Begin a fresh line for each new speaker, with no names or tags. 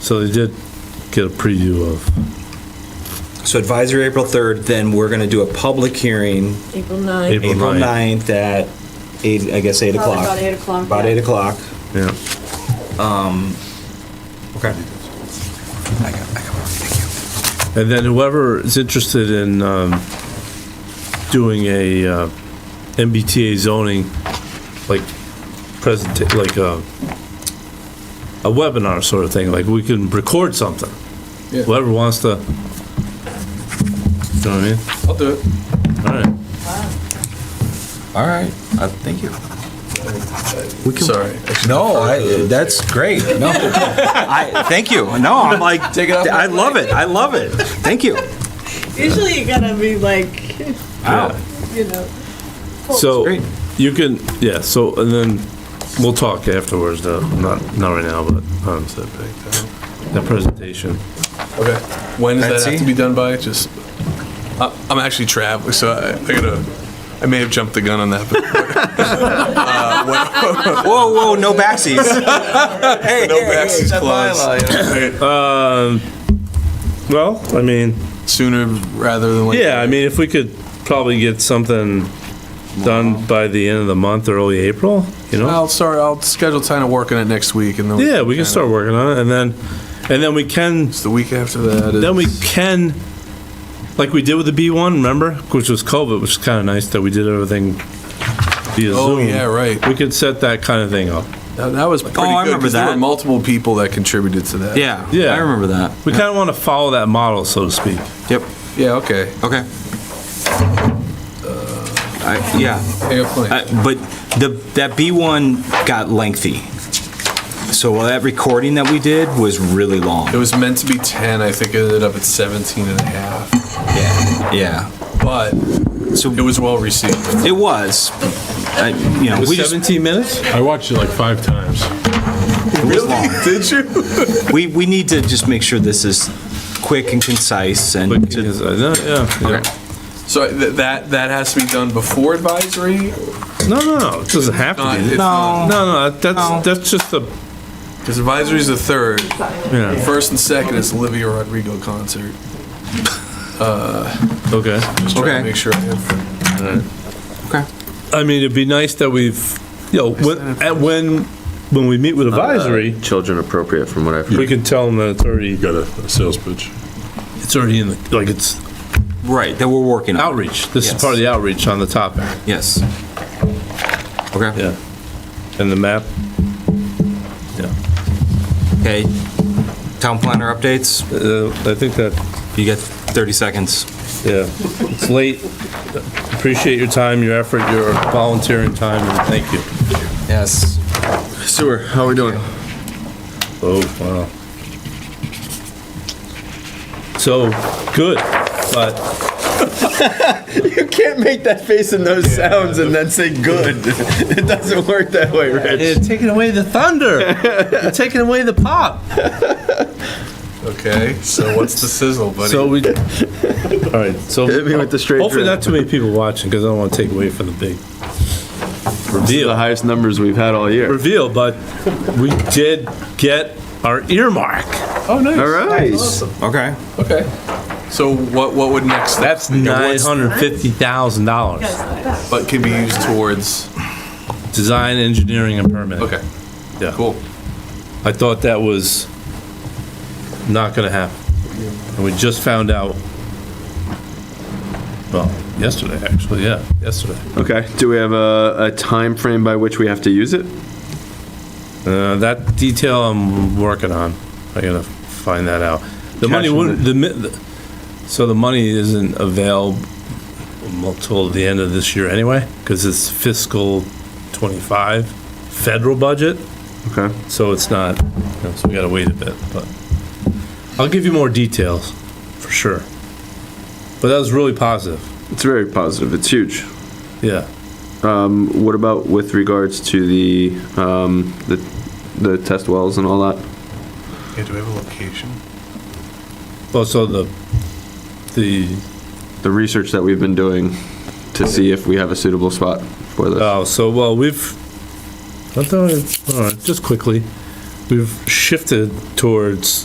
So they did get a preview of,
So advisory April 3rd, then we're going to do a public hearing
April 9th.
April
April
9th.
9th at, eight. I guess, 8
Probably
o'clock.
about 8 o'clock,
About
yeah.
8 o'clock.
yeah.
Okay.
And then whoever is interested in um, doing a uh, MBTA zoning, like, present, like a a webinar sort of thing, like, we can record something.
Yeah.
Whoever wants to, you know what I mean?
I'll do it.
All right.
All right, Uh, thank you.
Sorry.
No, I, that's great. No, I, thank you. No, I'm like,
Take it off
I love it. I love it. Thank you.
Usually you gotta be like,
Wow.
you know.
So,
Great.
you can, yeah, so, and then we'll talk afterwards, though, not, not right now, but, um, so, uh, that presentation.
Okay. When does that
Betsy?
have to be done by? Just, I- I'm actually traveling, so I I gotta, I may have jumped the gun on that. but-
Whoa, whoa, no backsies. Hey,
No
hey, hey,
backsies
that's my
clause.
line.
Okay.
Um, well, I mean,
Sooner rather than later.
yeah, I mean, if we could probably get something done by the end of the month, early April, you know?
I'll start, I'll schedule time to work on it next week and then.
Yeah, we can
kinda-
start working on it, and then, and then we can,
It's the week after that.
then we
is-
can, like we did with the B one, remember? Which was COVID, which is kinda nice that we did everything via Zoom.
Oh, yeah, right.
We could set that kinda thing up.
That that was pretty good.
Oh, I
'cause
remember
There were
that.
multiple people that contributed to that.
Yeah,
Yeah.
I remember that.
We kind of want to follow that model, so to speak.
Yep,
Yeah, okay.
okay. Uh, I, yeah.
I got plenty.
Uh, But the, that B1 got lengthy. So that recording that we did was really
It
long.
was meant to be 10, I think it ended up at 17 and a half,
Yeah,
but
so
it was well received.
it was, I- you know, we just, it
17 minutes?
I watched it like five times.
was long.
Did you?
We, we need to just make sure this is quick and concise and
uh,
to-
No,
So th- that, that has to be done before advisory?
no, no, it doesn't have
Not-
to be.
it's
No,
not-
no, that's, that's just a,
Because advisory is the third.
yeah,
First and second is Olivia Rodrigo concert.
okay.
Just trying
Okay.
to make sure. I have-
Okay.
I mean, it'd be nice that we've, you know, when, at when, when we
Uh,
meet with advisory,
Uh, Children appropriate from what I've heard.
we can tell them that it's already,
Got a a sales pitch.
it's already in the, like, it's
right, that we're working on,
outreach. This is
Yes.
part of the outreach on the topic,
yes. Okay,
yeah. And the map? Yeah,
okay. Town planner updates,
Uh, I think that
you get 30 seconds.
Yeah, it's late. Appreciate your time, your effort, your volunteering time, and thank you.
Yes.
Sewer, how we doing?
Oh, wow. So, good, but
You can't make that face and those sounds and then say good. It doesn't work that way, Rich.
taking away the thunder. You're taking away the pop.
Okay, so what's the sizzle, buddy?
So we, all right, so.
Hit me with the straight
Hopefully
drip.
not too many people watching, because I don't want to take away from the big
These are the highest numbers we've had all year.
reveal, but we did get our earmark.
oh, nice.
All right.
Okay.
Okay. So what, what would next?
That's
like,
nine
what's-
hundred fifty thousand dollars.
But can be used towards,
Design, engineering, and permitting.
okay,
Yeah.
cool.
I thought that was not gonna happen. And we just found out, well, yesterday, actually, yeah, yesterday.
Okay. Do we have a, a time frame by which we have to use it?
Uh, that detail I'm working on. I gotta find that out. The money
Cash in
wouldn't, the, mi- the- so the money isn't available till the end of this year anyway, because it's fiscal twenty-five federal budget.
Okay.
So it's not, you know, so we gotta wait a bit, but I'll give you more details, for sure. But that was really positive,
It's very positive. It's huge.
yeah.
Um, what about with regards to the um, the the test wells and all that?
Yeah, do we have a location?
Also, the, the,
The research that we've been doing to see if we have a suitable spot for this.
oh, so, well, we've, I thought, it- all right, just quickly, we've shifted towards